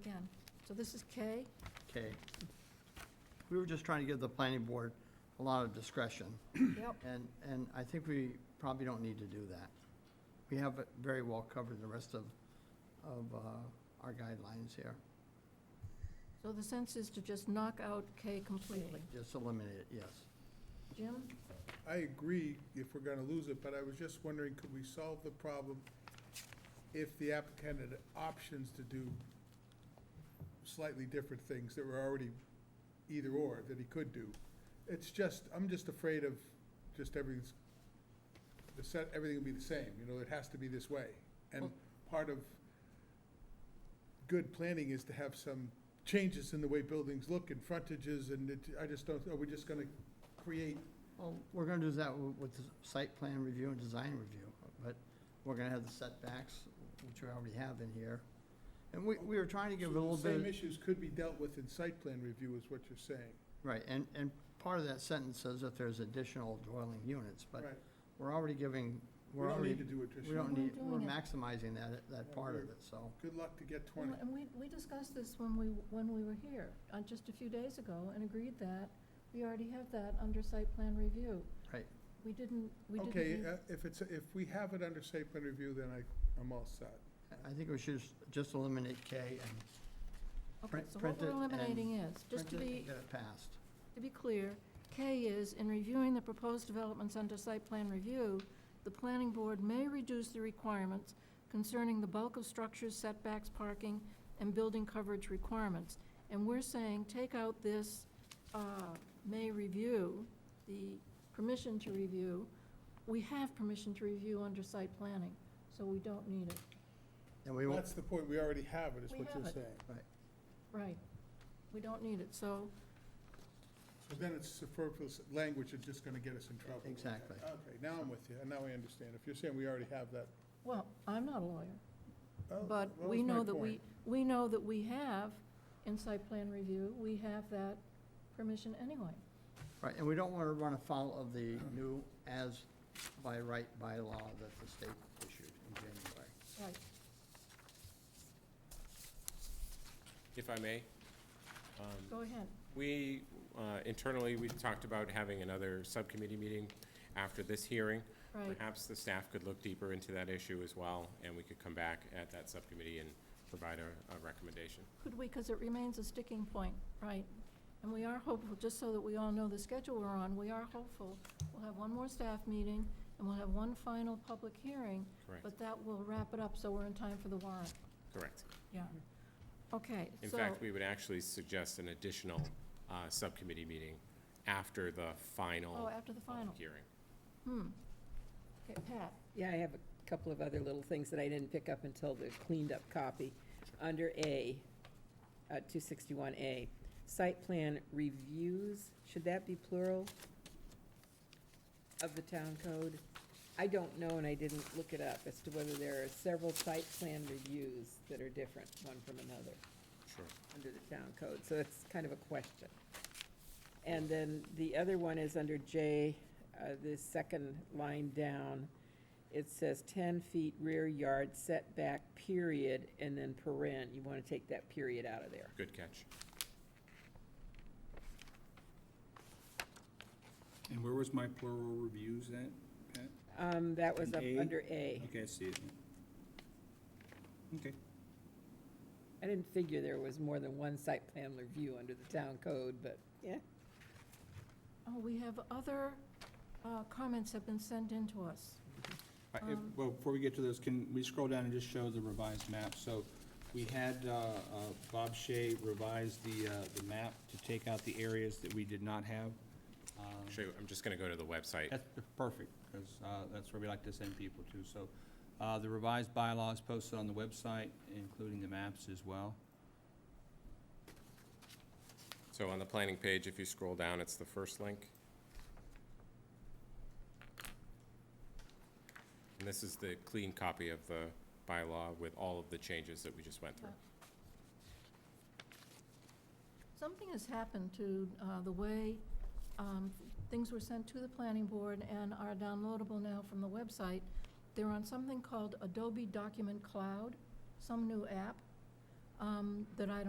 again. So this is K. Okay. We were just trying to give the planning board a lot of discretion, Yep. and, and I think we probably don't need to do that. We have it very well covered, the rest of, of uh, our guidelines here. So the sense is to just knock out K completely. Just eliminate it, yes. Jim? I agree if we're gonna lose it, but I was just wondering, could we solve the problem if the applicant had options to do slightly different things that were already either or that he could do? It's just, I'm just afraid of just everything's, the set, everything will be the same, you know, it has to be this way. And Well- part of good planning is to have some changes in the way buildings look and frontages and it, I just don't, are we just gonna create Well, we're gonna do that wi- with the site plan review and design review, but we're gonna have the setbacks, which we already have in here. And we, we were trying to give a So the little bit. Same issues could be dealt with in site plan review is what you're saying. Right, and, and part of that sentence says that there's additional dwelling units, but Right. we're already giving, We we're don't already, need to do it, we Tricia. don't We're need, doing we're it. maximizing that, that Yeah, part of we're- it, so. Good luck to get twenty. And we, we discussed this when we, when we were here, uh, just a few days ago, and agreed that we already have that under site plan review. Right. We didn't, we didn't. Okay, need- uh, if it's, if we have it under site plan review, then I, I'm all set. I- I think we should s- just eliminate K and Okay, uh, print- so print what we're it and eliminating is, just to print it be, and get it passed. To be clear, K is, in reviewing the proposed developments under site plan review, the planning board may reduce the requirements concerning the bulk of structures, setbacks, parking, and building coverage requirements. And we're saying, take out this, uh, may review, the permission to review. We have permission to review under site planning, so we don't need it. And we won't, That's the point, we already have it, is We what have you're it. saying. Right. We don't need it, so So then it's superfluous language, it's just gonna get us in trouble. with that. Exactly. Okay, now I'm with you, and now I understand. If you're saying we already have that. Well, I'm not a lawyer, oh, but that we was my know that we, point. we know that we have, in site plan review, we have that permission anyway. right, and we don't wanna run afoul of the new as by right bylaw that the state issued in January. Right. If I may, um, Go ahead. we, uh, internally, we talked about having another subcommittee meeting after this hearing. Right. Perhaps the staff could look deeper into that issue as well, and we could come back at that subcommittee and provide a, a recommendation. Could we, because it remains a sticking point, right? And we are hopeful, just so that we all know the schedule we're on, we are hopeful. We'll have one more staff meeting, and we'll have one final public hearing, Correct, but that will wrap it up, so we're in time for the warrant. correct. Yeah. Okay, Mm-hmm. In so, fact, we would actually suggest an additional, uh, subcommittee meeting after the final. oh, after the final. public Hearing. Hmm. Okay, Pat, Yeah, I have a couple of other little things that I didn't pick up until the cleaned-up copy. Under A, uh, 261A, site plan reviews, should that be plural of the town code? I don't know, and I didn't look it up, as to whether there are several site plan reviews that are different, one from another, Sure. under the town code, so it's kind of a question. And then the other one is under J, uh, the second line down. It says 10 feet rear yard setback, period, and then paren. You want to take that period out of there. Good catch. And where was my plural reviews at, Pat? Um, That was up An A? under A. Okay, I see it. Okay, I didn't figure there was more than one site plan review under the town code, but, yeah. oh, we have other, uh, comments have been sent in to us. I- if- Um, well, before we get to those, can we scroll down and just show the revised map? So we had, uh, uh, Bob Shea revise the, uh, the map to take out the areas that we did not have. Um, Actually, I'm just gonna go to the website. That's p- perfect, because that's where we like to send people to. So uh, the revised bylaw is posted on the website, including the maps as well. So on the planning page, if you scroll down, it's the first link. And this is the clean copy of the bylaw with all of the changes that we just went through. Something has happened to uh, the way um, things were sent to the planning board and are downloadable now from the website. They're on something called Adobe Document Cloud, some new app. um, that I don't